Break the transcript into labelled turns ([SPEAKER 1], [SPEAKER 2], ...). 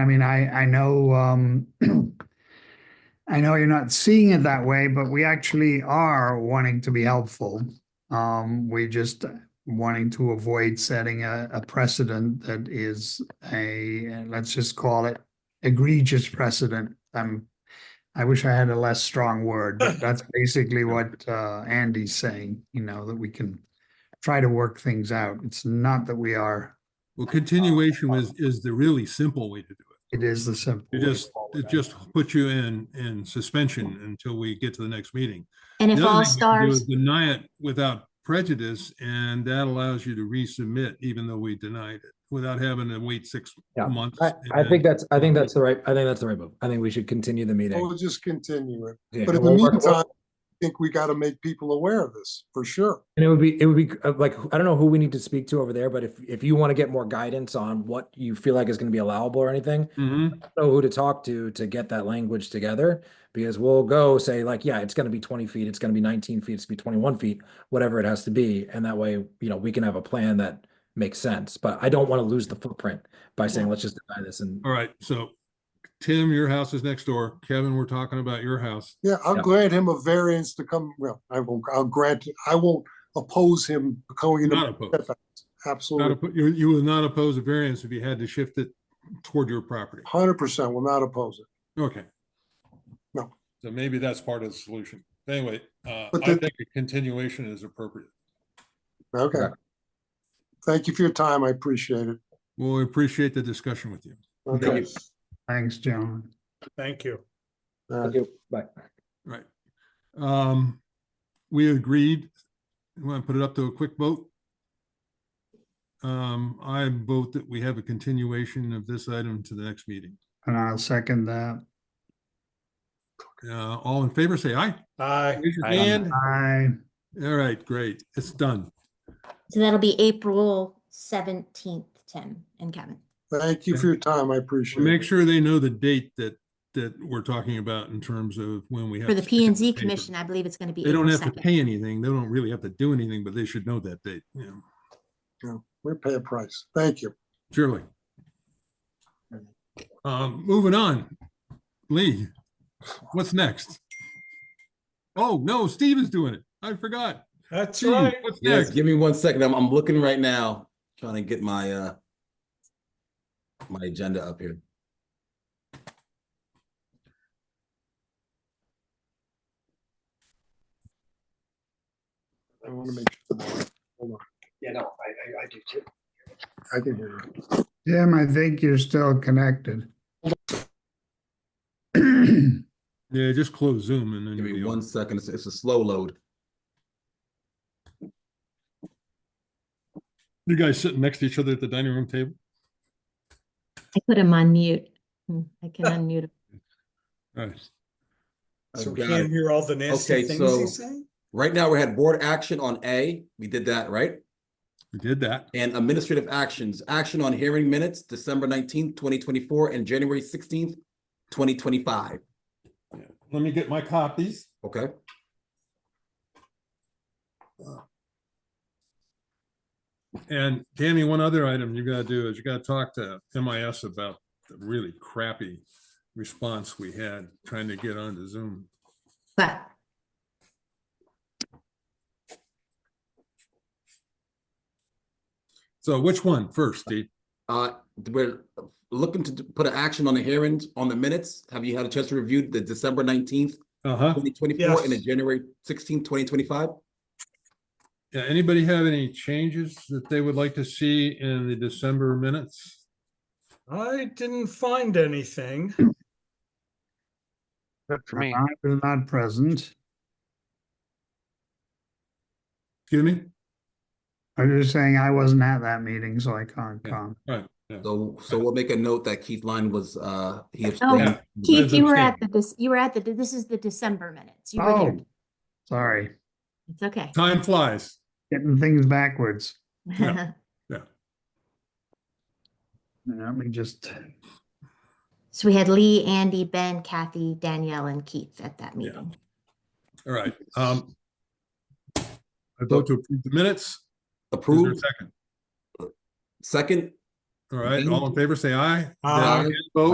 [SPEAKER 1] I mean, I, I know, um, I know you're not seeing it that way, but we actually are wanting to be helpful. Um, we just wanting to avoid setting a, a precedent that is a, let's just call it egregious precedent. I'm, I wish I had a less strong word, but that's basically what, uh, Andy's saying, you know, that we can try to work things out. It's not that we are,
[SPEAKER 2] Well,
[SPEAKER 3] uh,
[SPEAKER 2] continuation is, is the really simple way to do it.
[SPEAKER 1] it is the simple.
[SPEAKER 2] It just, it just puts you in, in suspension
[SPEAKER 3] Mm.
[SPEAKER 2] until we get to the next meeting.
[SPEAKER 4] And if
[SPEAKER 2] The other
[SPEAKER 4] all
[SPEAKER 2] thing we can do is
[SPEAKER 4] stars,
[SPEAKER 2] Deny it without prejudice, and that allows you to resubmit even though we denied it, without having to wait six
[SPEAKER 3] Yeah,
[SPEAKER 2] months.
[SPEAKER 3] I, I think
[SPEAKER 2] and-
[SPEAKER 3] that's, I think that's the right, I think that's the right move. I think we should continue the meeting.
[SPEAKER 5] We'll just continue it.
[SPEAKER 3] Yeah,
[SPEAKER 5] But in the
[SPEAKER 3] we'll work-
[SPEAKER 5] meantime, I think we got to make people aware of this for sure.
[SPEAKER 3] And it would be, it would be uh, like, I don't know who we need to speak to over there, but if, if you want to get more guidance on what you feel like is going to be allowable or anything,
[SPEAKER 2] Mhm.
[SPEAKER 3] know who to talk to to get that language together because we'll go say like yeah it's going to be 20 feet it's going to be 19 feet it's going to be 21 feet whatever it has to be and that way you know we can have a plan that makes sense but i don't want to lose the footprint by saying let's just deny this and
[SPEAKER 2] All right, so Tim, your house is next door. Kevin, we're talking about your house.
[SPEAKER 5] Yeah, I'll
[SPEAKER 3] Yeah.
[SPEAKER 5] grant him a variance to come, well, I won't, I'll grant, I won't oppose him going
[SPEAKER 2] Not
[SPEAKER 5] to,
[SPEAKER 2] opposed. Not
[SPEAKER 5] absolutely,
[SPEAKER 2] oppo- You, you would not oppose a variance if you had to shift it toward your property.
[SPEAKER 5] hundred percent will not oppose it.
[SPEAKER 2] Okay.
[SPEAKER 5] No.
[SPEAKER 2] So maybe that's part of the solution. Anyway, uh,
[SPEAKER 5] But
[SPEAKER 2] I
[SPEAKER 5] the-
[SPEAKER 2] think a continuation is appropriate.
[SPEAKER 5] Okay.
[SPEAKER 3] Okay.
[SPEAKER 5] Thank you for your time. I appreciate it.
[SPEAKER 2] Well, we appreciate the discussion with you.
[SPEAKER 3] Thank
[SPEAKER 5] Okay.
[SPEAKER 1] Thanks, gentlemen.
[SPEAKER 6] Thank you.
[SPEAKER 5] All right.
[SPEAKER 3] thank you bye
[SPEAKER 2] Right. Um, we agreed, we want to put it up to a quick vote. Um, I vote that we have a continuation of this item to the next meeting.
[SPEAKER 1] And I'll second that.
[SPEAKER 2] Uh, all in favor, say aye.
[SPEAKER 6] Aye.
[SPEAKER 2] Raise your
[SPEAKER 6] Aye.
[SPEAKER 2] hand.
[SPEAKER 1] I,
[SPEAKER 2] All right, great. It's done.
[SPEAKER 4] so that'll be April seventeenth, Tim and Kevin.
[SPEAKER 5] Thank you for your time. I appreciate it.
[SPEAKER 2] Make sure they know the date that, that we're talking about in terms of when we have.
[SPEAKER 4] For the
[SPEAKER 2] to stick it
[SPEAKER 4] P
[SPEAKER 2] in
[SPEAKER 4] and Z
[SPEAKER 2] paper.
[SPEAKER 4] commission, I believe it's gonna be
[SPEAKER 2] They don't
[SPEAKER 4] April
[SPEAKER 2] have to
[SPEAKER 4] second.
[SPEAKER 2] pay anything. They don't really have to do anything, but they should know that date, you know,
[SPEAKER 5] We're paying price. Thank you.
[SPEAKER 2] surely. Um, moving on. Lee, what's next? Oh, no, Steve is doing it. I forgot.
[SPEAKER 6] That's
[SPEAKER 2] Steve,
[SPEAKER 6] right.
[SPEAKER 2] What's
[SPEAKER 7] Yes,
[SPEAKER 2] next?
[SPEAKER 7] give me one second. I'm, I'm looking right now, trying to get my, uh, my agenda up here.
[SPEAKER 5] I want to make sure. Hold on.
[SPEAKER 8] Yeah, no, I, I, I do too.
[SPEAKER 5] I can hear you.
[SPEAKER 1] Jim, I think you're still connected. There
[SPEAKER 2] Yeah, just close Zoom and then.
[SPEAKER 7] Give
[SPEAKER 2] you'll
[SPEAKER 7] me
[SPEAKER 2] be
[SPEAKER 7] one
[SPEAKER 2] on.
[SPEAKER 7] second. It's, it's a slow load.
[SPEAKER 2] You guys sitting next to each other at the dining room table?
[SPEAKER 4] I put him on mute. Hmm, I can unmute him.
[SPEAKER 2] All right.
[SPEAKER 7] I've
[SPEAKER 6] So we
[SPEAKER 7] got
[SPEAKER 6] can't
[SPEAKER 7] it.
[SPEAKER 6] hear all the
[SPEAKER 7] Okay,
[SPEAKER 6] nasty things
[SPEAKER 7] so-
[SPEAKER 6] he's saying?
[SPEAKER 7] Right now, we had board action on A. We did that, right?
[SPEAKER 2] We did that.
[SPEAKER 7] And administrative actions, action on hearing minutes, December nineteenth, twenty twenty-four and January sixteenth, twenty twenty-five.
[SPEAKER 2] Yeah. Let me get my copies.
[SPEAKER 7] Okay?
[SPEAKER 2] And Danny, one other item you gotta do is you gotta talk to MIS about the really crappy response we had trying to get onto Zoom.
[SPEAKER 4] But
[SPEAKER 2] So which one first, Steve?
[SPEAKER 7] Uh, we're looking to d- put an action on the hearings, on the minutes. Have you had a chance to review the December nineteenth,
[SPEAKER 2] Uh-huh.
[SPEAKER 7] twenty twenty-four and the
[SPEAKER 6] Yes.
[SPEAKER 7] January sixteenth, twenty twenty-five?
[SPEAKER 2] Yeah, anybody have any changes that they would like to see in the December minutes?
[SPEAKER 6] I didn't find anything.
[SPEAKER 8] Good for me.
[SPEAKER 1] I was not present.
[SPEAKER 2] Excuse me?
[SPEAKER 1] I was just saying I wasn't at that meeting, so I can't
[SPEAKER 2] Yeah.
[SPEAKER 1] comment.
[SPEAKER 2] All right. yeah.
[SPEAKER 7] So, so we'll make a note that Keith Line was, uh, he abstained.
[SPEAKER 2] Yeah.
[SPEAKER 4] Keith,
[SPEAKER 2] That's
[SPEAKER 4] you were
[SPEAKER 2] okay.
[SPEAKER 4] at the, this, you were at the, this is the December minutes. You were there.
[SPEAKER 1] Oh, sorry,
[SPEAKER 4] It's okay.
[SPEAKER 2] Time flies.
[SPEAKER 1] getting things backwards.
[SPEAKER 2] yeah.
[SPEAKER 1] Let me just,
[SPEAKER 4] So we had Lee, Andy, Ben, Kathy, Danielle and Keith at that
[SPEAKER 2] Yeah.
[SPEAKER 4] meeting.
[SPEAKER 2] All right. Um. I vote to approve the minutes. Is there a
[SPEAKER 7] Approved,
[SPEAKER 2] second?
[SPEAKER 7] second?
[SPEAKER 2] All right, all in favor, say aye.
[SPEAKER 6] Aye.
[SPEAKER 2] Against, Vote.